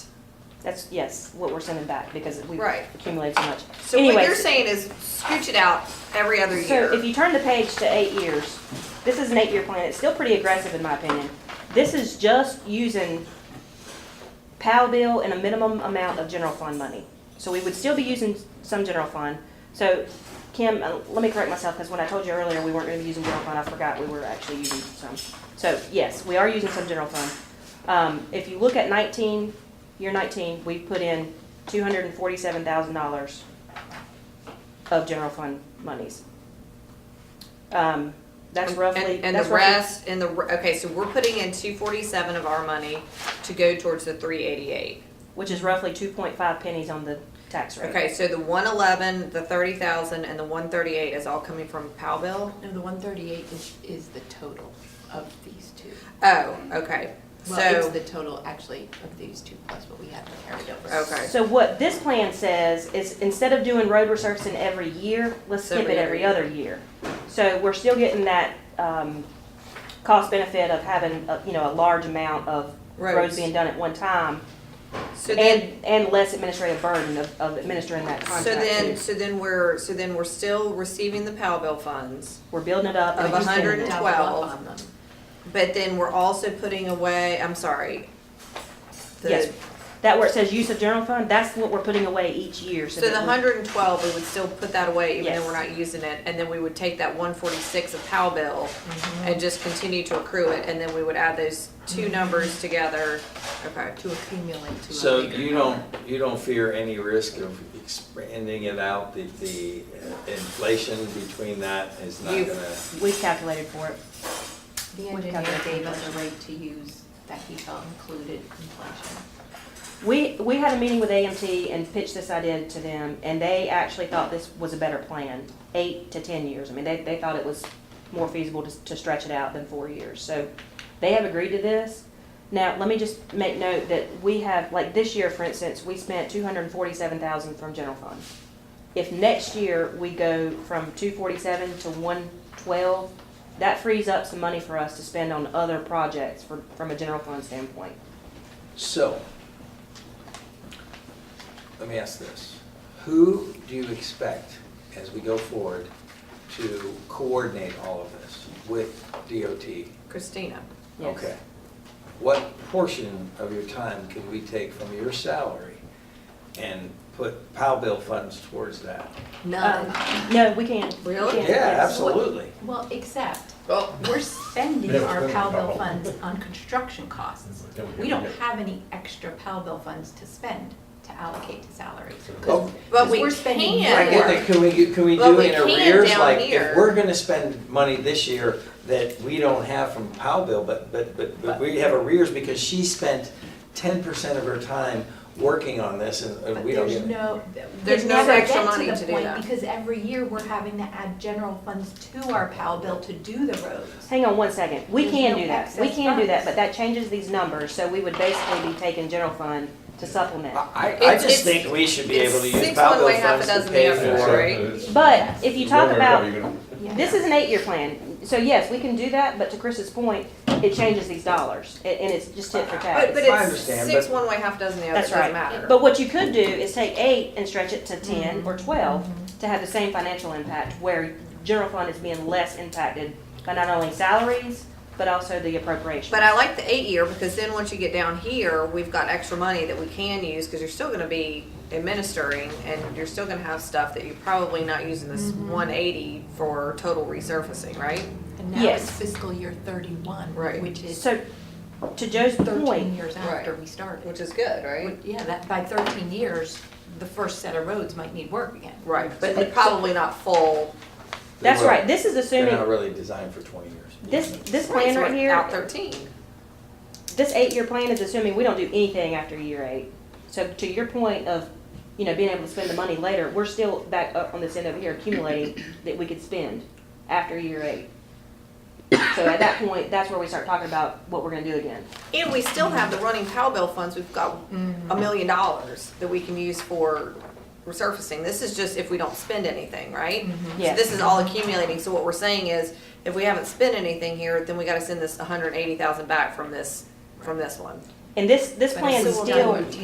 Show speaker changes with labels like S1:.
S1: That's, yes, what we're sending back because we've
S2: Right.
S1: accumulated so much.
S2: So what you're
S1: Anyways,
S2: saying is scooch it out every other
S1: So if
S2: year.
S1: you turn the page to eight years, this is an eight-year plan. It's still pretty aggressive in my opinion. This is just using PAL bill and a minimum amount of general fund money. So we would still be using some general fund. So Kim, uh, let me correct myself because when I told you earlier we weren't going to be using general fund, I forgot we were actually using some. So yes, we are using some general fund. Um, if you look at nineteen, year nineteen, we put in two hundred and forty-seven thousand dollars of general fund monies. Um, that's
S2: And-
S1: roughly.
S2: And and
S1: that's
S2: the
S1: roughly-
S2: rest, and the, re- okay, so we're putting in two forty-seven of our money to go towards the three eighty-eight.
S1: Which is roughly two point five pennies on the tax rate.
S2: Okay, so the one eleven, the thirty thousand, and the one thirty-eight is all coming from Powell bill?
S3: No, the one thirty-eight is, is the total of these two.
S2: Oh, okay,
S3: Well, it's
S2: so,
S3: the total actually of these two plus what we have carried over.
S2: okay.
S1: So what this plan says is instead of doing road resurfacing every year, let's skip
S2: Every
S1: it
S2: other
S1: every
S2: year.
S1: other year. So we're still getting that, um, cost benefit of having, uh, you know, a large amount of roads
S2: Roads.
S1: being done at one time.
S2: So then,
S1: And, and less administrative burden of, of administering that
S2: so
S1: contract.
S2: then,
S1: too.
S2: so then we're, so then we're still receiving the Powell bill funds,
S1: We're building it up. and
S2: Of
S1: we're spending
S2: hundred
S1: it.
S2: and
S3: Double up
S2: 12.
S3: on them.
S2: but then we're also putting away, I'm sorry. the-
S1: Yes. That where it says use of general fund, that's what we're putting away each year.
S2: So the
S1: that we-
S2: hundred and twelve, we would still put that away even though we're
S1: Yes.
S2: not using it, and then we would take that one forty-six of Powell bill
S1: Mm-hmm.
S2: and just continue to accrue it, and then we would add those two numbers together, okay.
S3: To accumulate to a
S4: So
S3: bigger
S4: you
S3: number.
S4: don't, you don't fear any risk of expanding it out, the, the uh, inflation between that is not
S2: You-
S4: gonna,
S1: We've calculated for it.
S3: The
S1: Would
S3: engineer
S1: cover
S3: gave us a rate to use that he felt included inflation.
S1: We, we had a meeting with AMT and pitched this idea to them, and they actually thought this was a better plan, eight to 10 years. I mean, they, they thought it was more feasible to, to stretch it out than four years. So they have agreed to this. Now, let me just make note that we have, like this year, for instance, we spent 247,000 from general fund. If next year we go from 247 to 112, that frees up some money for us to spend on other projects for, from a general fund standpoint.
S4: so. Let me ask this, who do you expect, as we go forward, to coordinate all of this with DOT?
S2: Christina,
S1: Yes.
S4: Okay. What portion of your time can we take from your salary and put POW bill funds towards that?
S3: None.
S1: Um, No, we can't.
S2: Um, Really?
S1: We can't,
S4: Yeah,
S1: yes.
S4: absolutely.
S3: Well, except,
S4: Oh.
S2: Well-
S3: we're spending
S5: Yeah, we're
S3: our
S5: spending
S3: Powell bill
S5: Powell.
S3: funds on construction costs.
S5: Yeah, we
S3: We
S5: can
S3: don't
S5: get-
S3: have any extra Powell bill funds to spend, to allocate to salaries. 'cause-
S4: Oh.
S2: But
S3: 'cause
S2: we
S3: we're spending
S2: can.
S4: I get that, can we, do- can we
S2: But
S4: do
S2: we
S4: in
S2: can
S4: arrears,
S2: down
S4: like,
S2: here.
S4: if we're gonna spend money this year that we don't have from Powell bill, but, but, but, but we have arrears because she spent ten percent of her time working on this and and
S3: But
S4: Uh, we don't
S3: there's
S4: get it.
S3: no,
S2: There's
S3: we
S2: no
S3: never
S2: extra
S3: get
S2: money
S3: to
S2: to
S3: the
S2: do that.
S3: point, because every year we're having to add general funds to our Powell bill to do the roads.
S1: Hang on one second. We
S3: There's
S1: can
S3: no
S1: do that. We
S3: excess
S1: can do that,
S3: funds.
S1: but that changes these numbers, so we would basically be taking general fund to supplement.
S4: I, I- I
S2: It's-
S4: just
S2: it's-
S4: think we should be
S2: it's
S4: able to use
S2: six
S4: Powell
S2: one
S4: bill
S2: way, half a
S4: funds to
S2: dozen
S4: pay
S2: the other.
S4: for.
S2: Right.
S1: But if you talk about,
S3: Yeah.
S1: this is an eight-year plan, so yes, we can do that, but to Chris's point, it changes these dollars, a- and it's just tit for
S2: but,
S1: tat.
S2: but
S4: I
S2: it's
S4: understand,
S2: six
S4: but-
S2: one way, half dozen the other, it
S1: That's
S2: doesn't
S1: right.
S2: matter.
S1: But what you could do is take eight and stretch it to ten or twelve to have the same financial impact, where general fund is being less impacted by not only salaries, but also the appropriations.
S2: But I like the eight year, because then once you get down here, we've got extra money that we can use, because you're still gonna be administering, and you're still gonna have stuff that you're probably not using this
S1: Mm-hmm.
S2: one eighty for total resurfacing, right?
S3: And now
S1: Yes.
S3: it's fiscal year thirty-one,
S2: Right.
S3: which is
S1: So, to Joe's
S3: thirteen
S1: point,
S3: years
S2: Right.
S3: after we started.
S2: Which is good, right?
S3: Yeah, that, by thirteen years, the first set of roads might need work again.
S2: Right, but it's probably not full.
S1: that's
S4: They
S1: right,
S4: were-
S1: this is
S4: They're
S1: assuming,
S4: not really designed for twenty years.
S1: this, this plan right
S2: Out
S1: here,
S2: thirteen.
S1: this eight-year plan is assuming we don't do anything after year eight. So to your point of, you know, being able to spend the money later, we're still back up on this end over here accumulating that we could spend after year eight. So at that point, that's where we start talking about what we're gonna do again.
S2: And we still have the running Powell bill funds, we've got a million dollars that we can use for resurfacing. This is just if we don't spend anything, right? So
S1: Yes.
S2: this is all accumulating, so what we're saying is, if we haven't spent anything here, then we gotta send this hundred and eighty thousand back from this, from this one.
S1: And this, this
S3: But
S1: plan
S3: it's
S1: is
S3: still
S1: still
S3: done.